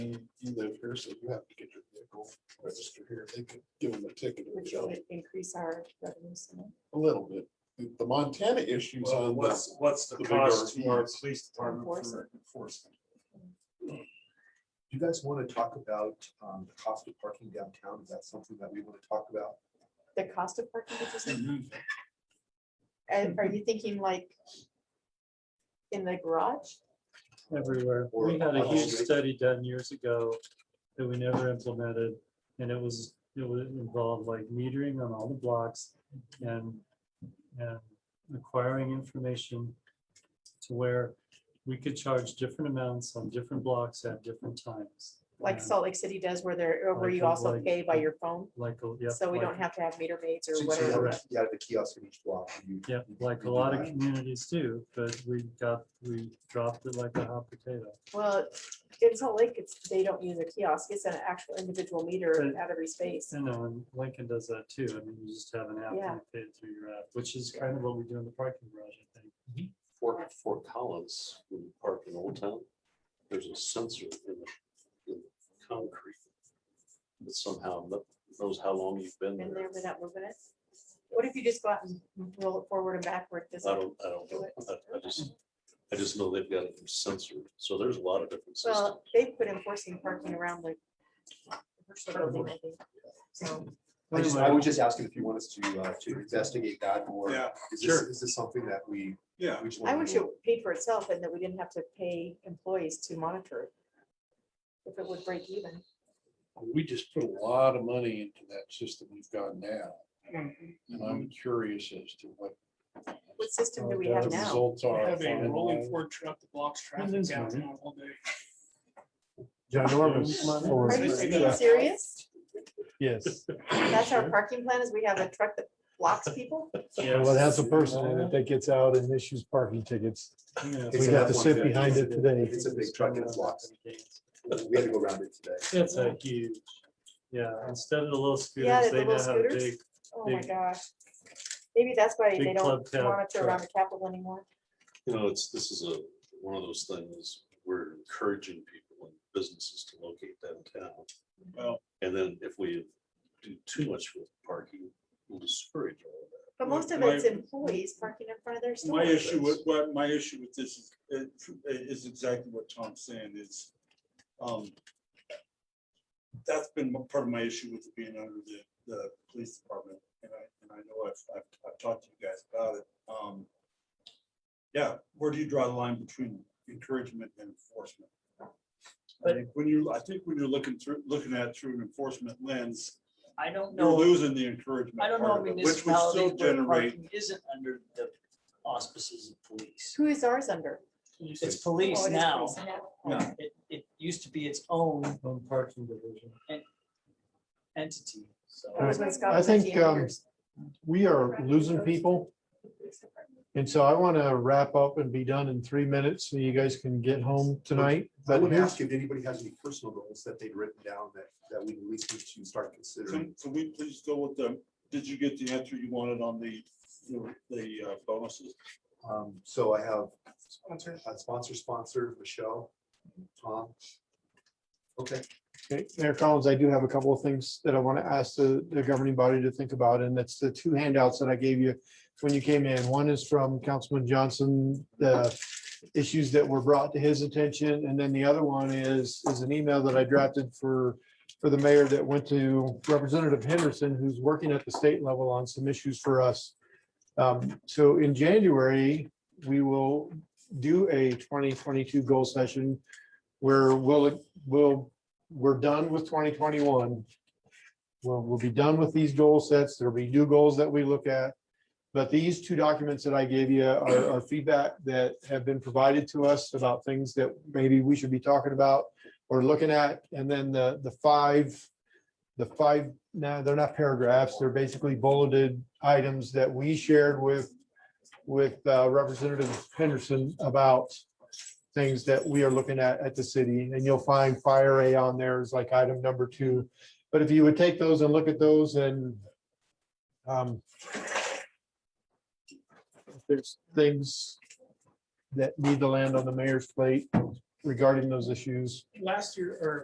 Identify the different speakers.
Speaker 1: you, you live here, so you have to get your vehicle registered here. They could give them a ticket or
Speaker 2: which
Speaker 1: something,
Speaker 2: would increase our revenue. somehow.
Speaker 1: a little bit. The- The Montana issues
Speaker 3: Well,
Speaker 1: on this.
Speaker 3: what's, what's the
Speaker 1: the big
Speaker 3: cost to our
Speaker 1: RVs.
Speaker 3: police department
Speaker 2: Enforce
Speaker 3: for
Speaker 2: it.
Speaker 3: enforcement?
Speaker 4: Do you guys want to talk about um, the cost of parking downtown? Is that something that we want to talk about?
Speaker 2: The cost of parking, which is-
Speaker 5: Mm-hmm.
Speaker 2: and are you thinking like in the garage?
Speaker 5: everywhere.
Speaker 4: Or
Speaker 5: We had a
Speaker 4: on the
Speaker 5: huge
Speaker 4: street.
Speaker 5: study done years ago that we never implemented. And it was, it would involve like metering on all the blocks and, and acquiring information to where we could charge different amounts on different blocks at different times.
Speaker 2: Like
Speaker 5: And
Speaker 2: Salt Lake City does where they're, where
Speaker 5: Like
Speaker 2: you
Speaker 5: a-
Speaker 2: also
Speaker 5: like-
Speaker 2: pay by your phone,
Speaker 5: Like, a- yeah.
Speaker 2: so we
Speaker 5: like-
Speaker 2: don't have to have meter maids
Speaker 4: So
Speaker 2: or
Speaker 4: you sort of
Speaker 2: whatever.
Speaker 4: have to- Yeah, the kiosk in each block. you-
Speaker 5: Yeah,
Speaker 4: you- you
Speaker 5: like a
Speaker 4: do
Speaker 5: lot of
Speaker 4: that.
Speaker 5: communities do, but we got, we dropped it like a hot potato.
Speaker 2: Well, in Salt Lake, it's, they don't use a kiosk, it's an actual individual meter
Speaker 5: Right.
Speaker 2: at every space.
Speaker 5: I know, and Lincoln does that too. I mean, you just have an app
Speaker 2: Yeah.
Speaker 5: and pay it through your app, which is kind of what we do in the parking garage, I think.
Speaker 6: Fort, Fort Collins, when you park in Old Town, there's a sensor in the, in the concrete. That somehow kno- knows how long you've been
Speaker 2: Been
Speaker 6: there.
Speaker 2: there without moving it. What if you just go out and roll it forward and backward? Does
Speaker 6: I
Speaker 2: it-
Speaker 6: don't, I don't, know. I, I just, I just know they've got it censored, so there's a lot of different systems.
Speaker 2: Well, they put enforcing parking around the. commercial building, I think. So,
Speaker 4: I just, I was just asking if you want us to, uh, to investigate that or
Speaker 3: Yeah,
Speaker 4: is this,
Speaker 3: sure.
Speaker 4: is this something that we?
Speaker 3: Yeah.
Speaker 4: we just
Speaker 2: I
Speaker 4: wanna
Speaker 2: wish it
Speaker 4: know?
Speaker 2: paid for itself and that we didn't have to pay employees to monitor. it, If it would break even.
Speaker 1: We just put a lot of money into that system we've got now. And I'm curious as to what
Speaker 2: What system do we
Speaker 5: Oh,
Speaker 2: have
Speaker 1: the
Speaker 2: now?
Speaker 1: results
Speaker 7: We
Speaker 1: are.
Speaker 7: have a rolling
Speaker 1: finalized.
Speaker 7: Ford truck that blocks traffic
Speaker 5: lose
Speaker 7: downtown all day.
Speaker 8: Mm-hmm. John Norman's.
Speaker 2: Are
Speaker 8: for-
Speaker 2: you
Speaker 7: Right.
Speaker 2: being serious?
Speaker 8: Yes,
Speaker 2: That's our parking plan is we have a truck that blocks people?
Speaker 8: well, it has a person in it that gets out and issues parking tickets.
Speaker 5: Yeah.
Speaker 4: It's
Speaker 8: We got to
Speaker 4: about
Speaker 8: sit
Speaker 4: 150.
Speaker 8: behind it today.
Speaker 4: It's a big truck and it's locked. We had to go around it today.
Speaker 5: It's a huge, yeah, instead of the little
Speaker 2: Yeah,
Speaker 5: scooters,
Speaker 2: the
Speaker 5: they now
Speaker 2: little
Speaker 5: have
Speaker 2: scooters.
Speaker 5: big,
Speaker 2: Oh my
Speaker 5: Big-
Speaker 2: gosh. Maybe that's why they
Speaker 5: big
Speaker 2: don't
Speaker 5: club cab
Speaker 2: monitor around the
Speaker 5: truck.
Speaker 2: Capitol anymore.
Speaker 6: You know, it's, this is a, one of those things, we're encouraging people and businesses to locate downtown.
Speaker 3: Well-
Speaker 6: And then if we do too much with parking, we'll discourage all of that.
Speaker 2: But
Speaker 3: Well,
Speaker 2: most of
Speaker 3: my-
Speaker 2: it's employees parking in front of their
Speaker 3: My
Speaker 2: stores.
Speaker 3: issue with, what, my issue with this is, it- is exactly what Tom's saying is, um, that's been m- part of my issue with being under the, the police department, and I, and I know I've, I've, I've talked to you guys about it, um. Yeah, where do you draw the line between encouragement and enforcement? I
Speaker 9: But-
Speaker 3: think when you, I think when you're looking through, looking at it through an enforcement lens,
Speaker 9: I don't
Speaker 3: you're
Speaker 9: know,
Speaker 3: losing the encouragement.
Speaker 9: I don't
Speaker 3: part
Speaker 9: know
Speaker 3: of it, Which would still
Speaker 9: municipalities where
Speaker 3: generate,
Speaker 9: parking isn't under the auspices of police.
Speaker 2: Who is ours under?
Speaker 9: It's
Speaker 2: Oh,
Speaker 9: police
Speaker 2: it is
Speaker 9: now.
Speaker 2: police now.
Speaker 3: Yeah.
Speaker 9: It, it used to be its own
Speaker 5: on parking division.
Speaker 9: entity, so.
Speaker 2: That was when Scott
Speaker 8: I
Speaker 2: was at
Speaker 8: think,
Speaker 2: GM
Speaker 8: um,
Speaker 2: years.
Speaker 8: We are losing people. And so I want to wrap up and be done in three minutes so you guys can get home tonight.
Speaker 4: I
Speaker 8: But
Speaker 4: would
Speaker 8: here's,
Speaker 4: ask if anybody has any personal goals that they'd written down that, that we at least need to start
Speaker 3: So,
Speaker 4: considering.
Speaker 3: so we please go with the, did you get the answer you wanted on the, the uh, bonuses?
Speaker 4: Um, so I have sponsor, a sponsor, sponsor, Michelle, Tom. Okay,
Speaker 8: okay, Mayor Collins, I do have a couple of things that I want to ask the, the governing body to think about, and that's the two handouts that I gave you when you came in. One is from Councilman Johnson, the issues that were brought to his attention, and then the other one is, is an email that I drafted for, for the mayor that went to Representative Henderson, who's working at the state level on some issues for us. Um, So in January, we will do a twenty twenty-two goal session where we'll, we'll, we're done with twenty twenty-one. We'll, we'll be done with these goal sets. There'll be new goals that we look at. But these two documents that I gave you are, are feedback that have been provided to us about things that maybe we should be talking about or looking at. And then the, the five, the five, no, they're not paragraphs. They're basically bulleted items that we shared with, with uh, Representative Henderson about things that we are looking at at the city. And you'll find fire A on there is like item number two. But if you would take those and look at those and um, if there's things that need to land on the mayor's plate regarding those issues.
Speaker 7: Last year, or